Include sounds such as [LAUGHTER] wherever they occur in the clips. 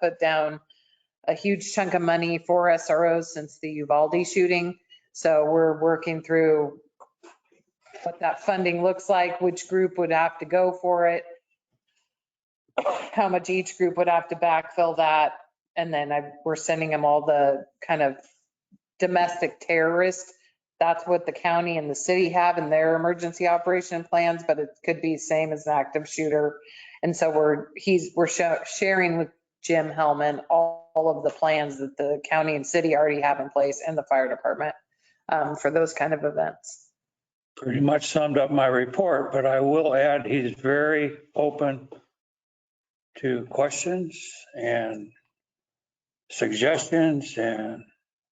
put down a huge chunk of money for SROs since the Uvalde shooting. So we're working through what that funding looks like, which group would have to go for it, how much each group would have to backfill that. And then I, we're sending them all the kind of domestic terrorist. That's what the county and the city have in their emergency operation plans, but it could be same as an active shooter. And so we're, he's, we're sho- sharing with Jim Hellman all all of the plans that the county and city already have in place and the fire department um, for those kind of events. pretty much summed up my report, but I will add, he's very open to questions and suggestions, and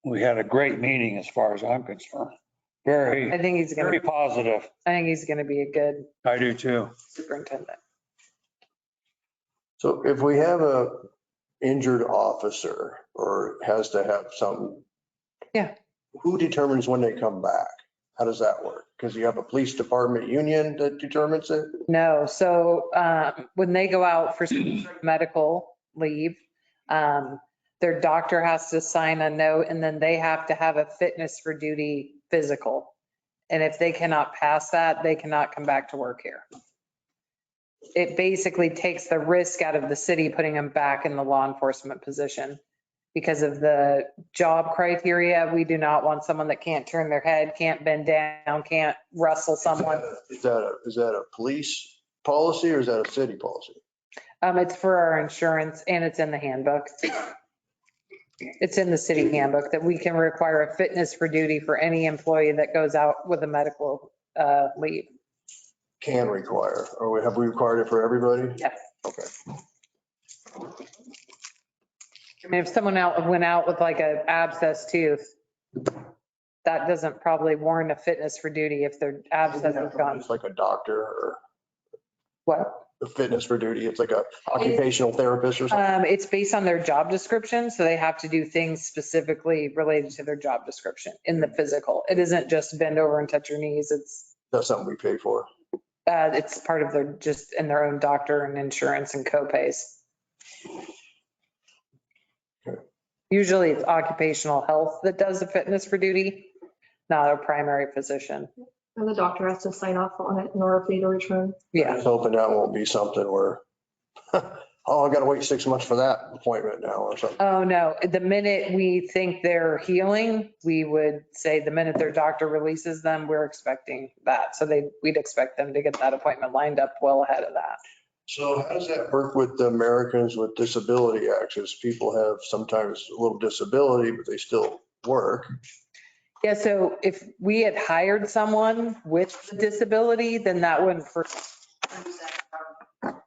we had a great meeting as far as I'm concerned. I Very, think he's gonna, very positive. I think he's gonna be a good I do too. superintendent. So if we have a injured officer or has to have something. Yeah. Who determines when they come back? How does that work? Because you have a police department union that determines it? No, so um, when they go out for some sort of medical leave, um, their doctor has to sign a note and then they have to have a fitness for duty physical. And if they cannot pass that, they cannot come back to work here. It basically takes the risk out of the city putting them back in the law enforcement position. Because of the job criteria, we do not want someone that can't turn their head, can't bend down, can't wrestle someone. Is that a is that a police policy or is that a city policy? Um, it's for our insurance and it's in the handbook. It's in the city handbook that we can require a fitness for duty for any employee that goes out with a medical, uh, leave. Can require, or we- have we required it for everybody? Yes. Okay. I mean, if someone out, went out with like an abscess tooth, that doesn't probably warrant a fitness for duty if their abscess is gone. It's like a doctor or What? a fitness for duty. It's like a occupational therapist or something. Um, it's based on their job description, so they have to do things specifically related to their job description in the physical. It isn't just bend over and touch your knees. It's, That's something we pay for. uh, it's part of their, just in their own doctor and insurance and copays. Usually it's occupational health that does the fitness for duty, not a primary physician. And the doctor has to sign off on it in order for you to return. I'm Yeah, just hoping that won't be something where, [LAUGHS] oh, I gotta wait six months for that appointment now or something. oh no, the minute we think they're healing, we would say the minute their doctor releases them, we're expecting that. So they, we'd expect them to get that appointment lined up well ahead of that. So how does that work with the Americans with Disability Act? Is people have sometimes a little disability, but they still work. Yeah, so if we had hired someone with a disability, then that wouldn't for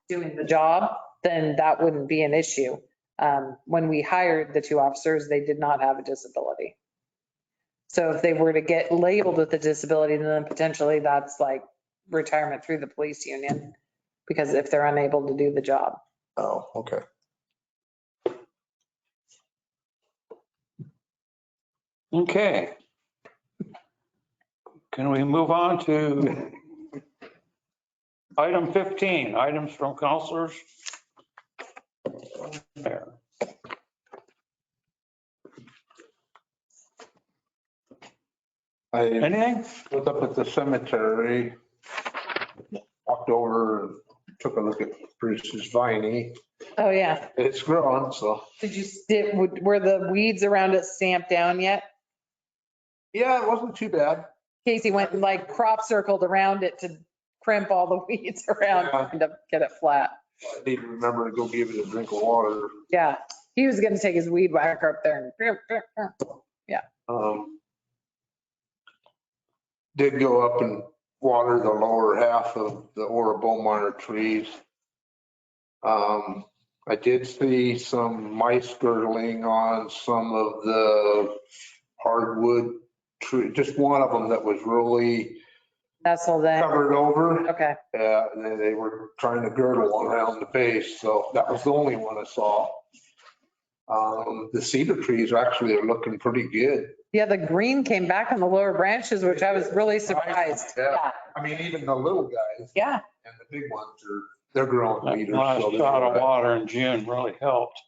doing the job, then that wouldn't be an issue. Um, When we hired the two officers, they did not have a disability. So if they were to get labeled with a disability, then potentially that's like retirement through the police union because if they're unable to do the job. Oh, okay. Okay. Can we move on to item 15, items from counselors? There. I Anything? was up at the cemetery, walked over and took a look at Bruce's viney. Oh, yeah. It's growing, so. Did you, did- were the weeds around it stamped down yet? Yeah, it wasn't too bad. Casey went and like crop circled around it to crimp all the [LAUGHS] weeds around, Yeah. kind of get it flat. I need to remember to go give it a drink of water. Yeah, he was gonna take his weed whacker up there and. Um, Did go up and water the lower half of the Ora Beaumont trees. Um, I did see some mice girdling on some of the hardwood tree, just one of them that was really That's all that, covered over. okay, Uh, they, they were trying to girdle around the base, so that was the only one I saw. Um, the cedar trees actually are looking pretty good. yeah, the green came back on the lower branches, which I was really surprised. Yeah. I mean, even the little guys Yeah, and the big ones are They're growing That leaders. last so they're- shot of water in June really helped.